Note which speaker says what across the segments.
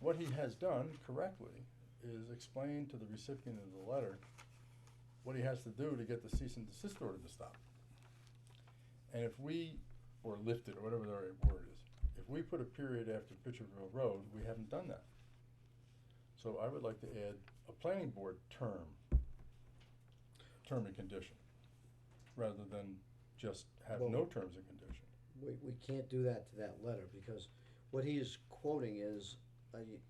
Speaker 1: What he has done correctly is explain to the recipient of the letter what he has to do to get the cease and desist order to stop. And if we, or lift it, or whatever the right word is, if we put a period after Pitcherville Road, we haven't done that. So I would like to add a planning board term, term and condition, rather than just have
Speaker 2: Well-
Speaker 1: no terms and condition.
Speaker 2: We, we can't do that to that letter, because what he is quoting is, uh, y-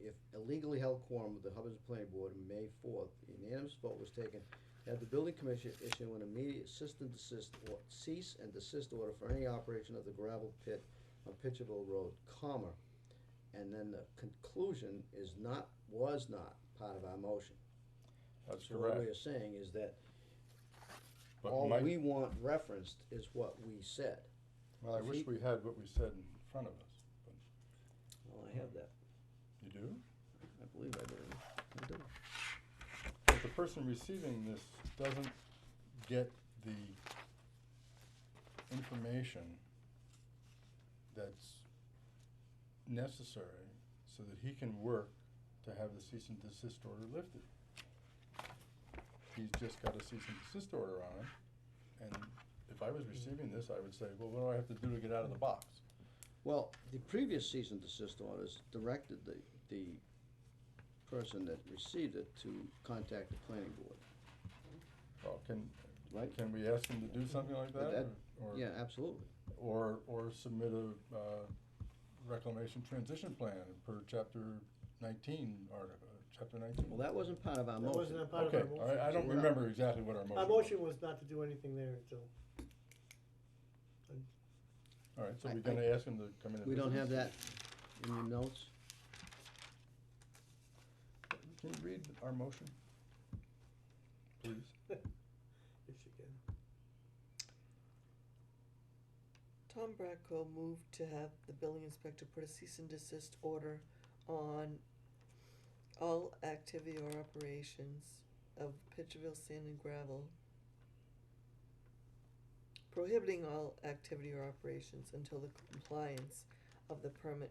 Speaker 2: if a legally held quorum with the Hubbard's Planning Board on May fourth, unanimous vote was taken, have the building commission issue an immediate cease and desist or cease and desist order for any operation of the gravel pit on Pitcherville Road, comma. And then the conclusion is not, was not part of our motion.
Speaker 1: That's
Speaker 2: So what
Speaker 1: correct.
Speaker 2: we are saying is that
Speaker 1: But
Speaker 2: all
Speaker 1: my-
Speaker 2: we want referenced is what we said.
Speaker 1: Well, I
Speaker 2: if
Speaker 1: wish
Speaker 2: he-
Speaker 1: we had what we said in front of us, but
Speaker 2: Well, I have that,
Speaker 1: you do?
Speaker 2: I believe I do, I do.
Speaker 1: But the person receiving this doesn't get the information that's necessary so that he can work to have the cease and desist order lifted. He's just got a cease and desist order on him, and if I was receiving this, I would say, well, what do I have to do to get out of the box?
Speaker 2: Well, the previous cease and desist orders directed the, the person that received it to contact the planning board,
Speaker 1: Well, can,
Speaker 2: right?
Speaker 1: can we ask him to do something like that?
Speaker 2: But that-
Speaker 1: or- or-
Speaker 2: Yeah, absolutely.
Speaker 1: Or, or submit a, uh, reclamation transition plan per chapter nineteen, article, uh, chapter nineteen.
Speaker 2: Well, that wasn't part of our
Speaker 3: That
Speaker 2: motion.
Speaker 3: wasn't a part of
Speaker 1: Okay,
Speaker 3: our
Speaker 1: all right, I
Speaker 3: motion.
Speaker 1: don't
Speaker 2: So we're not-
Speaker 1: remember exactly what our motion was.
Speaker 3: Our motion was not to do anything there until,
Speaker 1: All right, so
Speaker 2: I-
Speaker 1: we're gonna ask him to come in and.
Speaker 2: We don't
Speaker 1: visit
Speaker 2: have
Speaker 1: us?
Speaker 2: that in your notes.
Speaker 1: Can you read our motion? Please.
Speaker 3: if she can.
Speaker 4: Tom Bradco moved to have the building inspector put a cease and desist order on all activity or operations of Pitcherville Sand and Gravel. Prohibiting all activity or operations until the compliance of the permit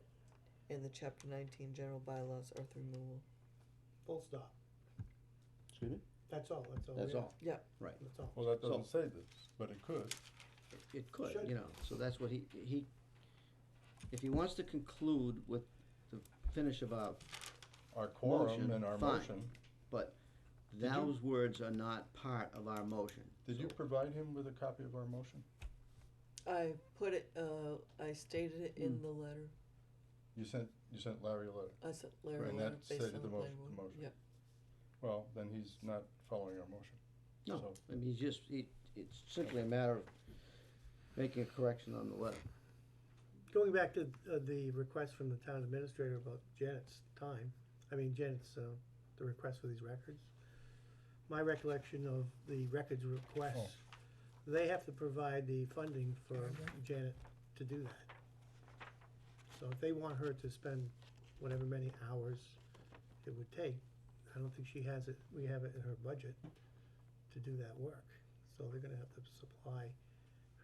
Speaker 4: in the chapter nineteen general bylaws earth removal.
Speaker 3: Full stop.
Speaker 2: Excuse me?
Speaker 3: That's all, that's all.
Speaker 2: That's
Speaker 3: we-
Speaker 2: all.
Speaker 4: Yeah.
Speaker 2: Right.
Speaker 3: That's all.
Speaker 1: Well, that
Speaker 2: So-
Speaker 1: doesn't say this, but it could.
Speaker 2: It could,
Speaker 3: Should.
Speaker 2: you know, so that's what he, he, if he wants to conclude with the finish of our,
Speaker 1: Our quorum
Speaker 2: Motion,
Speaker 1: and our
Speaker 2: fine.
Speaker 1: motion.
Speaker 2: but
Speaker 1: you-
Speaker 2: those words are not part of our motion.
Speaker 1: Did you provide him with a copy of our motion?
Speaker 4: I put it, uh, I stated it in the letter,
Speaker 1: You sent, you sent Larry a letter.
Speaker 4: I sent Larry a
Speaker 1: And
Speaker 4: letter
Speaker 1: that
Speaker 4: based on
Speaker 1: stated the
Speaker 4: the planning
Speaker 1: motion- the
Speaker 4: board.
Speaker 1: motion.
Speaker 4: Yeah.
Speaker 1: Well, then he's not following our motion.
Speaker 2: No.
Speaker 1: So-
Speaker 2: I mean, he's just, he, it's simply a matter of making a correction on the letter.
Speaker 3: Going back to uh, the request from the town administrator about Janet's time, I mean Janet's, uh, the request for these records. My recollection of the records
Speaker 1: Oh.
Speaker 3: requests, they have to provide the funding for Janet to do that. So if they want her to spend whatever many hours it would take, I don't think she has it, we have it in her budget to do that work. So they're gonna have to supply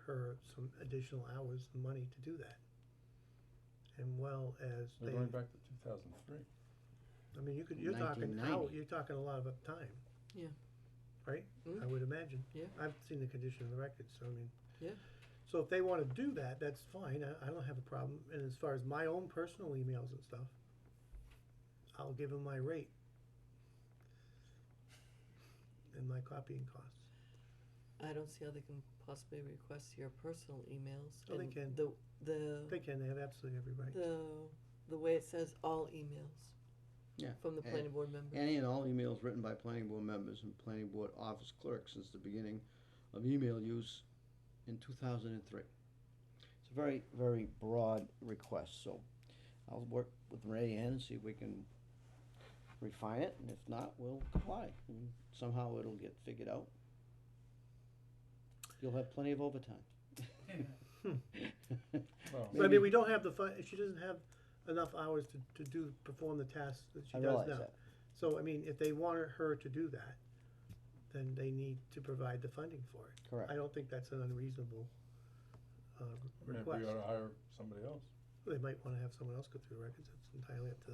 Speaker 3: her some additional hours, of money to do that. And well as
Speaker 1: We're
Speaker 3: they,
Speaker 1: going back to two thousand three.
Speaker 3: I mean, you could, you're talking, how,
Speaker 2: 1990.
Speaker 3: you're talking a lot about time.
Speaker 4: Yeah.
Speaker 3: Right?
Speaker 4: Mm.
Speaker 3: I would imagine.
Speaker 4: Yeah.
Speaker 3: I've seen the condition of the records, so I mean.
Speaker 4: Yeah.
Speaker 3: So if they wanna do that, that's fine, I, I don't have a problem, and as far as my own personal emails and stuff, I'll give them my rate. And my copying costs.
Speaker 4: I don't see how they can possibly request your personal emails.
Speaker 3: Oh, they
Speaker 4: and
Speaker 3: can.
Speaker 4: The, the,
Speaker 3: They can, they have absolutely every right.
Speaker 4: the, the way it says all emails
Speaker 2: Yeah.
Speaker 4: from the
Speaker 2: and-
Speaker 4: planning board member.
Speaker 2: Any and all emails written by planning board members and planning board office clerks since the beginning of email use in two thousand and three. It's a very, very broad request, so I'll work with Ray Ann and see if we can refine it, and if not, we'll comply. and Somehow it'll get figured out. You'll have plenty of overtime.
Speaker 1: Well,
Speaker 3: But I mean,
Speaker 2: Maybe-
Speaker 3: we don't have the fun, she doesn't have enough hours to, to do, perform the tasks that
Speaker 2: I
Speaker 3: she does now.
Speaker 2: realize that.
Speaker 3: So, I mean, if they want her to do that, then they need to provide the funding for it.
Speaker 2: Correct.
Speaker 3: I don't think that's an unreasonable, uh,
Speaker 1: maybe we
Speaker 3: request.
Speaker 1: ought to hire somebody else.
Speaker 3: They might wanna have someone else go through the records, it's entirely up to them.